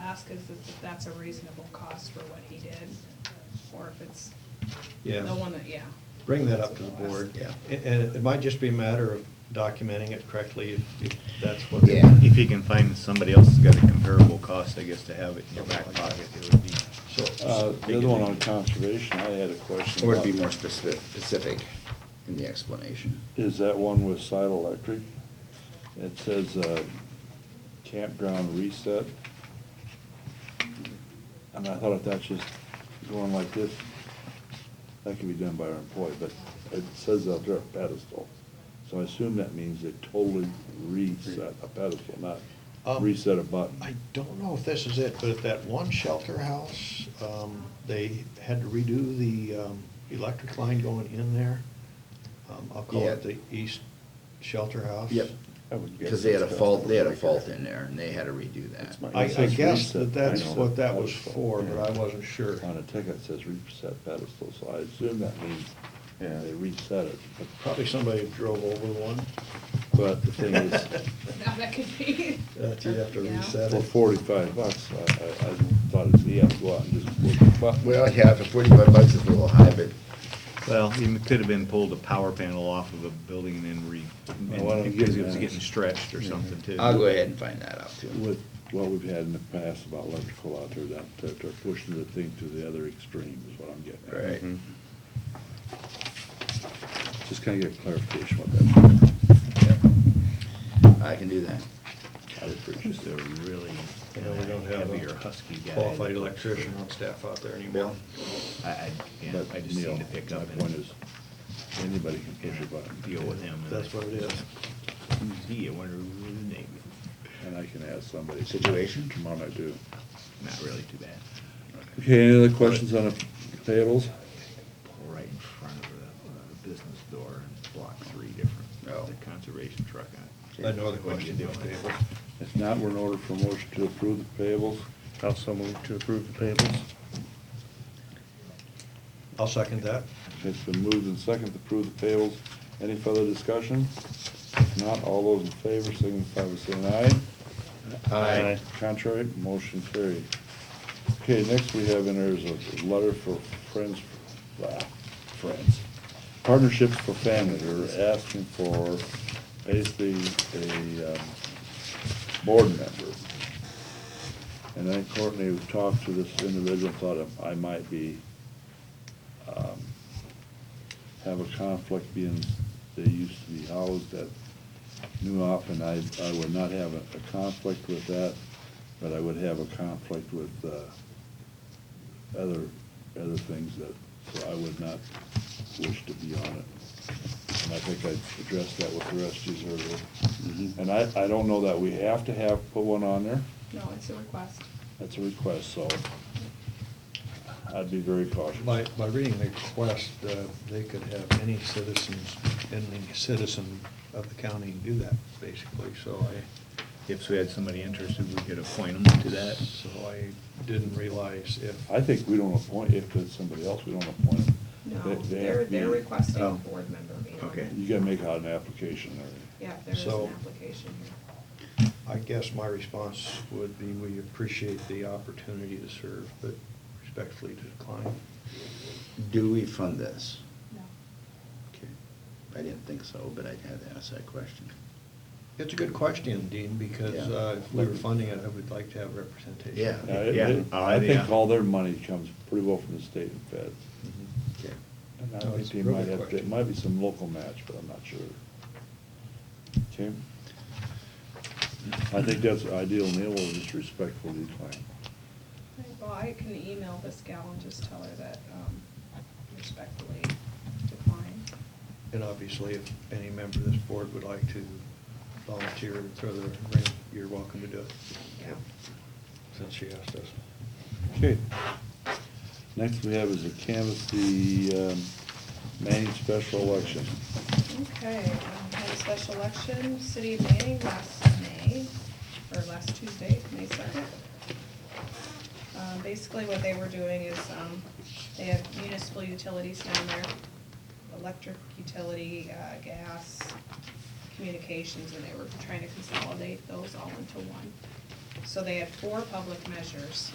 ask is if that's a reasonable cost for what he did, or if it's the Yeah. one that, yeah. Bring that up to the board. Yeah. A- And it might just be a matter of documenting it correctly if if that's what. Yeah. If you can find somebody else that's got a comparable cost, I guess, to have it in your back pocket, it would be. So, Uh, The other one on conservation, I had a question. Or to be about- more specific, specific in the explanation. Is that one with side electric? It says uh, campground reset. And I thought if that's just going like this, that could be done by our employee, but it says up there a pedestal. So I assume that means they totally reset a pedestal, not Um, reset a button. I don't know if this is it, but at that one shelter house, um, they had to redo the, um, electric line going in there. Um, I'll call it Yeah. the east shelter house. Yep. I would guess Because they had a that's fault, they had a right fault there. in there and they had to redo that. That's my- I, It I says guess that reset that's pedestal. what that was for, but I wasn't sure. On a ticket it says reset pedestal, so I assume that means they reset it. But- Probably somebody drove over one, But the thing is, Now, that could be. that you'd Uh, have to Yeah. reset for it. forty-five bucks, I, I I thought it'd be, I'd go out and just look at the button. Well, yeah, for forty-five bucks is a little high, but Well, it could have been pulled a power panel off of a building and then re, Oh, I don't and- because it get was that. getting stretched or something too. I'll go ahead and find that out too. With what we've had in the past about electrical out there, that, that they're pushing the thing to the other extreme is what I'm getting at. Right. Mhm. Just kinda get clarification what that, Yep. I can do that. I would appreciate Just a really You know, we don't have heavier a husky guy. qualified electrician on staff out there anymore. I, I, yeah, But I just Neil, need to pick up My point and is, anybody can push a button. deal with him. and That's what it is. Who's he? I wonder who his name is. And I can ask somebody. Situation? Come on, I do. Not really too bad. Okay, any other questions on the payables? Pull right in front of the, uh, the business door and block three different, Oh. the conservation truck. I had no other What you questions on doing? the table. If not, we're in order for motion to approve the payables. Also move to approve the payables. I'll second that. It's been moved and seconded to approve the payables. Any further discussion? If not, all those in favor signify by saying aye. Aye. Contrary, motion carried. Okay, next we have in there is a letter for Friends, uh, Friends, Partnerships for Family. They're asking for basically a, um, board member. And then Courtney talked to this individual, thought I might be, um, have a conflict being, they used to be housed at New Op, and I, I would not have a, a conflict with that, but I would have a conflict with, uh, other, other things that, so I would not wish to be on it. And I think I addressed that with the rest of you earlier. Mhm. And I, I don't know that we have to have, put one on there. No, it's a request. That's a request, so I'd be very cautious. By, by reading the request, uh, they could have any citizens, any citizen of the county do that, basically, so If we had somebody interested, we could appoint them to I, that. so I didn't realize if. I think we don't appoint, if it's somebody else, we don't appoint them. No, They- they they're, have to be- they're requesting a oh, board member be on okay. it. You gotta make out an application or, Yeah, there is So- an application here. I guess my response would be, we appreciate the opportunity to serve, but respectfully decline. Do we fund this? No. Okay. I didn't think so, but I'd have to ask that question. It's a good question, Dean, because Yeah. uh, if we were funding it, I would like to have representation. Yeah. I- Yeah. they- Oh, I think yeah. all their money comes pretty well from the state and feds. Mm-hmm. Mhm. Okay. And No, I think it's a they real might good have, there question. might be some local match, but I'm not sure. Okay? I think that's ideal, Neil, will just respectfully decline. Right, Well, I can email this gal and just tell her that um, respectfully decline. And obviously, if any member of this board would like to volunteer and throw their ring, you're welcome to do it, Yeah. since she asked us. Okay. Next we have is a canvass the um, Manning special election. Okay, um, had a special election, city of Manning last May, or last Tuesday, May second. Um, basically what they were doing is, um, they have municipal utilities down there, electric utility, uh, gas, communications, and they were trying to consolidate those all into one. So they had four public measures.